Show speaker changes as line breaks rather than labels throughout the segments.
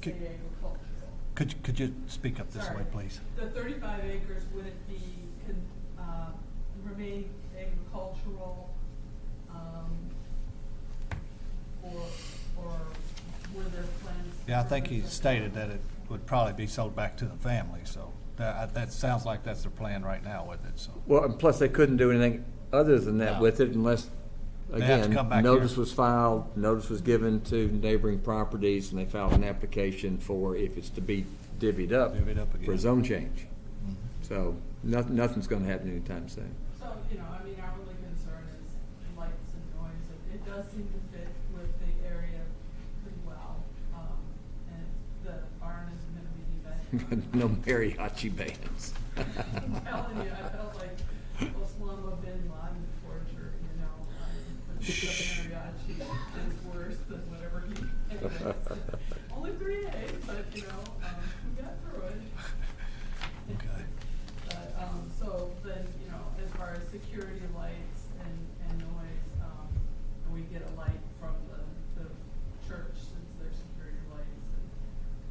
Could-
in agricultural.
Could, you- could you speak up this way,
Sorry.
please?
The thirty-five acres wouldn't be, con- uh, remain agricultural, um, or, or were there plans?
Yeah, I think he stated that it would probably be sold back to the family, so that, that sounds like that's their plan right now with it, so.
Well, and plus they couldn't do anything other than that
No.
with it unless,
They have to
again,
come back
notice
here.
was filed, notice was given to neighboring properties, and they filed an application for if it's to be divvied up.
Divvied up
For
again.
a zone change. So, noth- nothing's gonna happen anytime soon.
So, you know, I mean, our only concern is lights and noise. It- It does seem to fit with the area pretty well. Um, and the barn is gonna be event.
No mariachi bands.
I'm telling you, I felt like Osama bin Laden torture, you know. um, The mariachi is worse than whatever he, anyways. Only three days, but, you know, um, we got through it.
Okay.
But, um, so then, you know, as far as security lights and, and noise, um, and we get a light from the, the church since there's security lights and,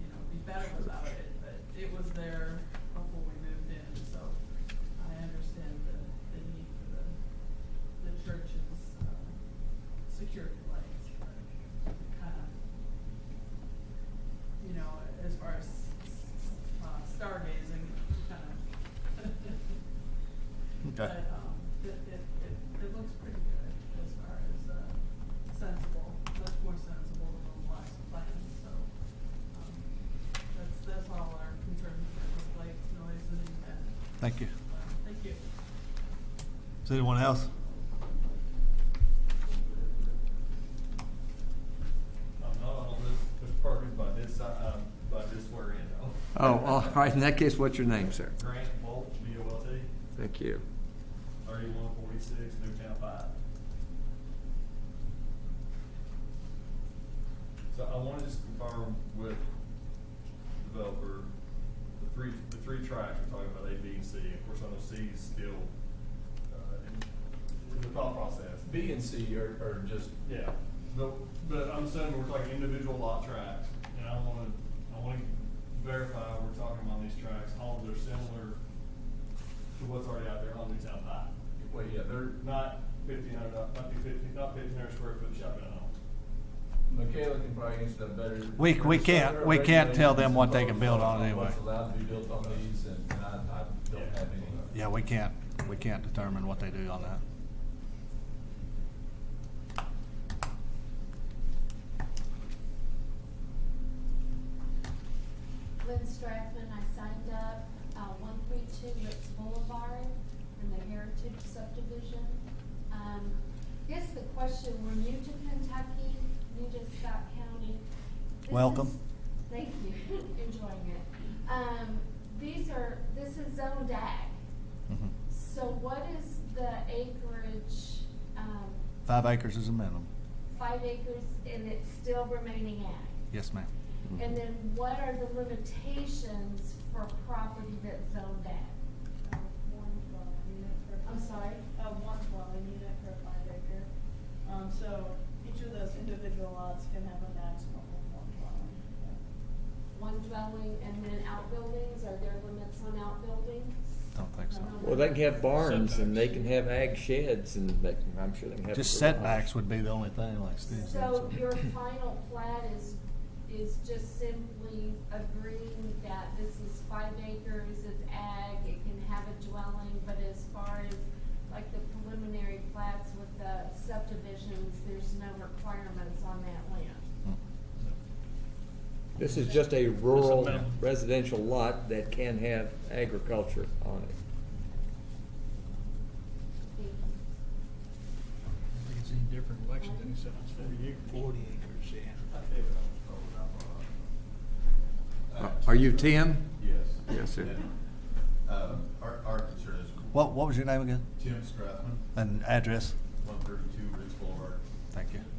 you know, be better without it, but it was there before we moved in, so I understand the, the need for the, the church's, um, security lights, but kinda you know, as far as uh, stargazing, kind of.
Okay.
But, um, it, it, it, it looks pretty good as far as, uh, sensible, much more sensible than the last plan, so, um, that's, that's all our concern, is lights, noise, and event.
Thank you.
Uh, Thank you.
Is anyone else?
I'm not on this, this program by this, si- um, by this swear in though.
Oh, all right, in that case, what's your name, sir?
Grant Bolt, B O L T,
Thank you.
thirty-one forty-six, Newtown Five. So I wanted to just confirm with developer, the three, the three tracks we're talking about, A, B, and C, of course, I know C is still, uh, in, in the thought process.
B and C are, are just,
Yeah, but, but I'm saying we're talking individual lot tracks, and I wanna, I wanna verify we're talking about these tracks, homes that are similar to what's already out there on Newtown High.
well, yeah, they're,
Not fifteen hundred, not fifteen, not fifteen hundred square foot shotgun homes.
Michaela can probably answer that better.
We- we can't- we can't tell them what they can build on anyway.
What's allowed to be built on these, and and I, I don't have any.
Yeah, we can't, we can't determine what they do on that.
Lynn Strathman, I signed up, uh, one three two Ritz Boulevard in the Heritage subdivision. Um, guess the question, we're new to Kentucky, new to Scott County. This
Welcome.
is- Thank you, enjoying it. Um, these are, this is zoned ag,
Mhm.
so what is the acreage, um,
Five acres is a minimum.
five acres, and it's still remaining ag?
Yes, ma'am.
And then what are the limitations for property that's zoned ag?
of one dwelling unit per.
I'm sorry?
Of uh, one dwelling unit per five acre. Um, so each of those individual lots can have a maximum of one dwelling.
One dwelling and then outbuildings, are there limits on outbuildings?
Don't think so.
Well, they can have barns, and they can have ag sheds, and they can, I'm sure they can have. a
Just
garage.
setbacks would be the only thing like Steve said.
So your final plat is, is just simply agreeing that this is five acres, it's ag, it can have a dwelling, but as far as like the preliminary plats with the subdivisions, there's no requirements on that land?
Mm.
This is just a rural
minimum.
residential lot that can have agriculture on it.
Thank you.
I think it's any different in Lexington, except it's forty acres. Forty acres, yeah.
That's David, I was told, I brought up.
Are you Tim?
Yes.
Yes, sir.
Yeah. Um, Our, our concern is
What, what was your name again?
Tim Strathman,
And address?
one thirty-two Ridge Boulevard. Um,
Thank you.
Mm-hmm.
Um,